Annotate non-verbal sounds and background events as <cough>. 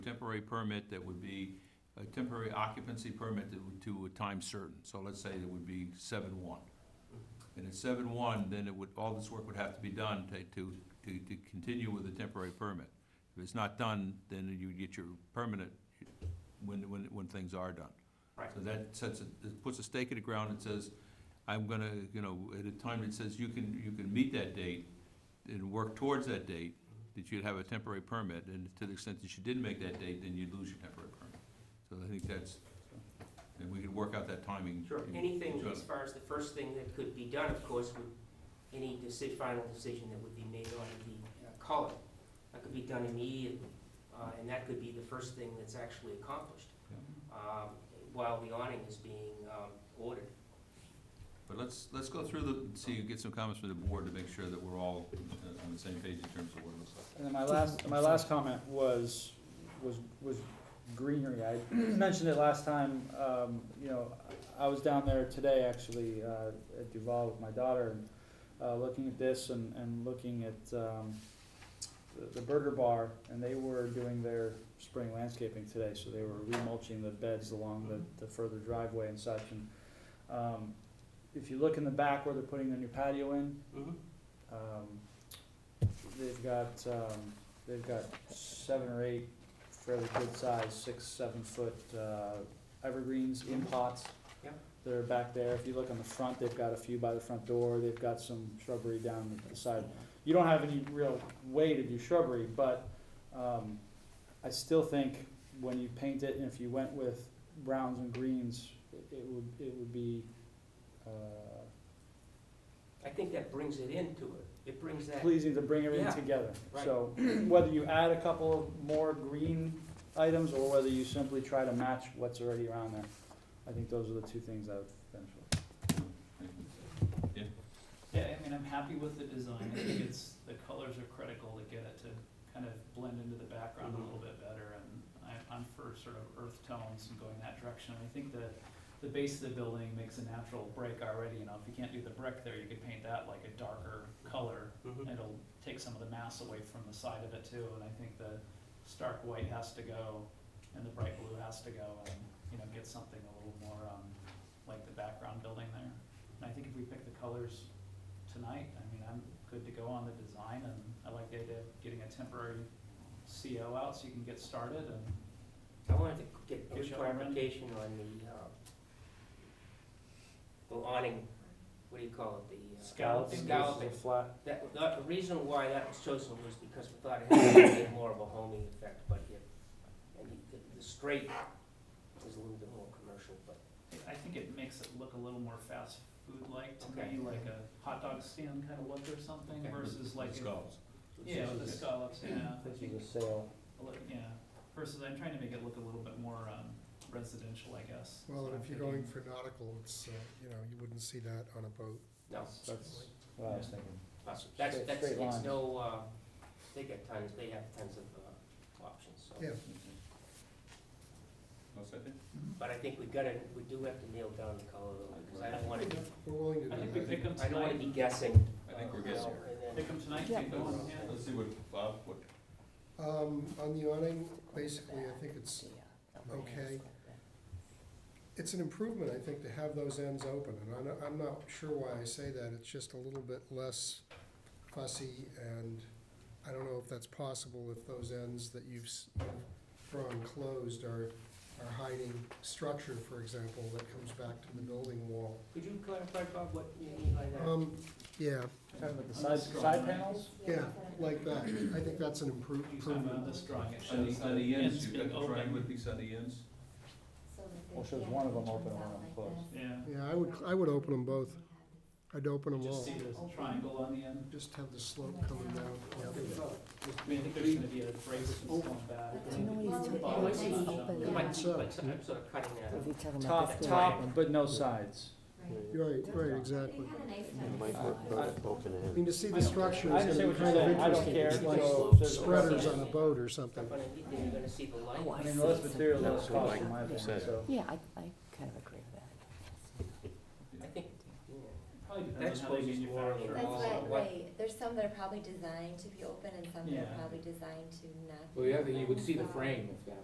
temporary permit that would be, a temporary occupancy permit that would, to a time certain. So let's say it would be seven one. And at seven one, then it would, all this work would have to be done to, to, to, to continue with the temporary permit. If it's not done, then you get your permanent when, when, when things are done. Right. So that sets, a- it puts a stake in the ground and says, I'm gonna, you know, at a time that says you can, you can meet that date and work towards that date, that you'd have a temporary permit, and to the extent that you didn't make that date, then you'd lose your temporary permit. So I think that's, and we could work out that timing. Sure, in- anything in- as far as the first thing that could be done, of course, would, any deci- final decision that would be made on the uh, color, that could be done immediately, uh, and that could be the first thing that's actually accomplished, Yeah. um, while the awning is being, um, ordered. But let's, let's go through the, see, get some comments from the board to make sure that we're all uh, on the same page in terms of what it looks like. And then my last, my last comment was, was, was greenery. I <clears throat> mentioned it last time, um, you know, I was down there today actually, uh, at Duval with my daughter and, uh, looking at this and, and looking at, um, the- the Burger Bar, and they were doing their spring landscaping today, so they were remulching the beds along the, the further driveway and such. And, um, if you look in the back where they're putting their new patio in, Mm-hmm. um, they've got, um, they've got seven or eight fairly good size, six, seven foot, uh, evergreens in pots. Yeah. That are back there. If you look on the front, they've got a few by the front door. They've got some shrubbery down the side. You don't have any real way to do shrubbery, but, um, I still think when you paint it and if you went with browns and greens, it it would, it would be, uh, I think that brings it into it, it brings that, pleasing to bring everything Yeah, together. right. So <clears throat> whether you add a couple of more green items or whether you simply try to match what's already around there, I think those are the two things I would finish with. Yeah, I mean, I'm happy with the design, I think it's, the colors are critical to get it to kind of blend into the background a little bit better, and I, I'm for sort of earth tones and going that direction, I think the, the base of the building makes a natural break already, you know, if you can't do the brick there, you could paint that like a darker color, Mhm. it'll take some of the mass away from the side of it too, and I think the stark white has to go, and the bright blue has to go, and, you know, get something a little more, um, like the background building there. And I think if we pick the colors tonight, I mean, I'm good to go on the design, and I like the idea of getting a temporary CO out so you can get started, and I wanted to get Oh, your shall I run? clarification on the, uh, the awning, what do you call it, the? uh, Scallop. Scalloping. Flat. That, the the reason why that was chosen was because we thought it had a bit more of a homing effect, but it, and the, the straight is a little bit more commercial, but I think it makes it look a little more fast food-like to Okay. me, like a hot dog stand kind of look or something Okay. versus like. Let's a- go. Yeah, with the scallops, yeah, I This think is a sale. a li- Yeah, versus I'm trying to make it look a little bit more um, residential, I guess. Well, So and I'm if you're thinking- going for nautical, it's, uh, you know, you wouldn't see that on a boat. no, That's what I was thinking. that's, that's, Straight- that's, straight it's lines. no, uh, they got tons, they have tons of, uh, options, so. Yeah. One second. But I think we gotta, we do have to nail down the color though, because I don't wanna, We're willing to I think do we that. pick them I don't wanna tonight, be guessing. I think uh, we're you know, guessing. and then- pick them tonight, Yeah. keep going, yeah. Let's see what, Bob, what, Um, on the awning, basically, I think it's, okay. it's an improvement, I think, to have those ends open, and I'm, not- I'm not sure why I say that, it's just a little bit less fussy, and I don't know if that's possible, if those ends that you've s- you've drawn closed are, are hiding structure, for example, that comes back to the building wall. Could you clarify, Bob, what you mean by that? Um, yeah, Talking about the side, side panels? yeah, like that, I think that's an improve- You talking improvement. about this drawing, it on shows the, on the ends, you've being got the triangular open. piece on the ends? Well, shows one of them open and one of them closed. Yeah, Yeah, I would, I would open them both. I'd open them just all. see this triangle on the end. Just have the slope coming down. Yeah. I mean, I think there's gonna be a break that's going back. Oh. But you know he's Bottom typically section. just open. It might be, So- but I'm sort of cutting that out. If you're talking about Top, this top, one. but no sides. Uh, Right, right, exactly. I mean, to see I the don't- structure I is understand gonna be what you're kind of saying. I don't interesting. care. It's like So if there's a spreaders precedent- on a boat or something. But anything, you're gonna see the light. Oh, I mean, the less material, the less cost in my opinion, Yeah. so. Yeah, I, I kind of agree with that. I think, yeah, Probably That depends on how they exposes water manufacture and it That's all also. that. right, right, there's some that are probably designed to be open and some that Yeah. are probably designed to not. Well, be the other, you would open, see the so- frame of that.